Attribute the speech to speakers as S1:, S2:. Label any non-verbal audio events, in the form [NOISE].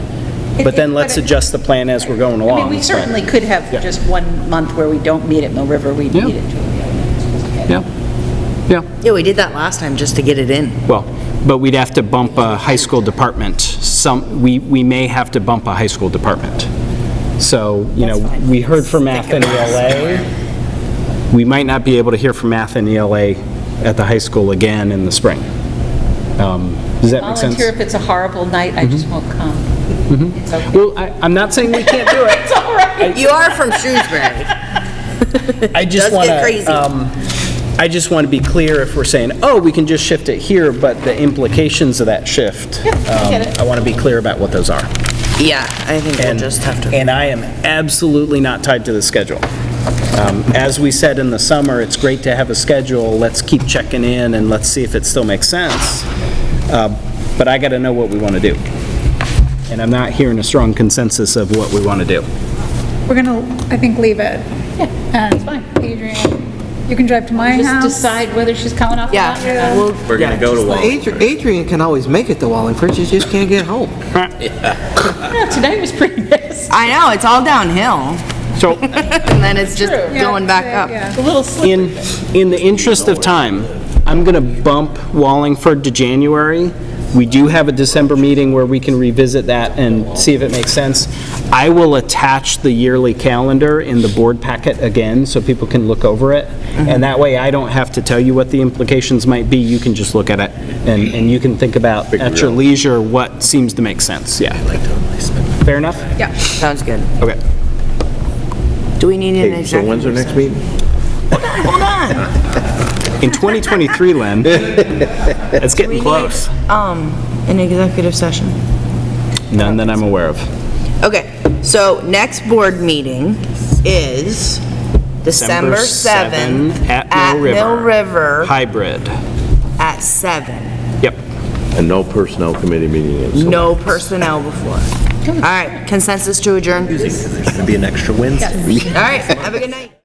S1: plan, but then let's adjust the plan as we're going
S2: I
S1: along.
S2: mean, we
S1: so-
S2: certainly could have
S1: Yeah.
S2: just one month where we don't meet at Mill River, we
S1: Yeah.
S2: meet at Julia.
S1: Yeah, yeah,
S3: Yeah, we did that last time just to get it in.
S1: well, but we'd have to bump a high school department. Some, we, we may have to bump a high school department. So, you know, we heard from math and ELA. We might not be able to hear from math and ELA at the high school again in the spring. Um, Does that make sense?
S2: Volunteer if it's a horrible night,
S1: Mm-hmm.
S2: I just won't come. [LAUGHS] It's okay.
S1: Well, I, I'm not saying we can't do it.
S2: It's all right.
S3: You are from Shrewsbury.
S1: I just
S3: Does
S1: want
S3: get crazy.
S1: to, um, I just want to be clear if we're saying, oh, we can just shift it here, but the implications of that shift.
S2: Yeah, I get
S1: um,
S2: it.
S1: I want to be clear about what those are.
S3: Yeah, I think we'll
S1: And-
S3: just have to.
S1: And I am absolutely not tied to the schedule. Um, As we said in the summer, it's great to have a schedule, let's keep checking in and let's see if it still makes sense. Uh, But I got to know what we want to do. And I'm not hearing a strong consensus of what we want to do.
S4: We're gonna, I think, leave it. Yeah, that's
S2: fine.
S4: Adrian, you can drive to my
S2: Just
S4: house.
S2: decide whether she's coming off the
S3: Yeah,
S2: lot.
S3: we'll.
S5: We're gonna go to Wallingford.
S6: Adrian, Adrian can always make it to Wallingford, she just can't get home.
S2: Yeah, Tonight was pretty [LAUGHS] nice.
S3: I know, it's all downhill,
S1: So
S3: [LAUGHS] and then it's just
S2: True.
S4: Yeah,
S3: going back up.
S4: yeah.
S2: A little slippery.
S1: in, in the interest of time, I'm going to bump Wallingford to January. We do have a December meeting where we can revisit that and see if it makes sense. I will attach the yearly calendar in the board packet again, so people can look over it. And that way, I don't have to tell you what the implications might be, you can just look at it, and, and you can think about at your leisure what seems to make sense, yeah. Fair enough?
S4: Yeah.
S3: Sounds good.
S1: Okay.
S3: Do we need an
S5: So
S3: executive?
S5: when's our next meeting?
S3: Hold on.
S1: In 2023, Len, it's getting close.
S3: Um, an executive session.
S1: None that I'm aware of.
S3: Okay, so next board meeting is December 7th.
S1: At Mill River.
S3: At Mill River
S1: Hybrid.
S3: at 7.
S1: Yep.
S5: And no personnel committee meeting in July.
S3: No personnel before. All right, consensus to adjourn? It's gonna be an extra Wednesday. All right, have a good night.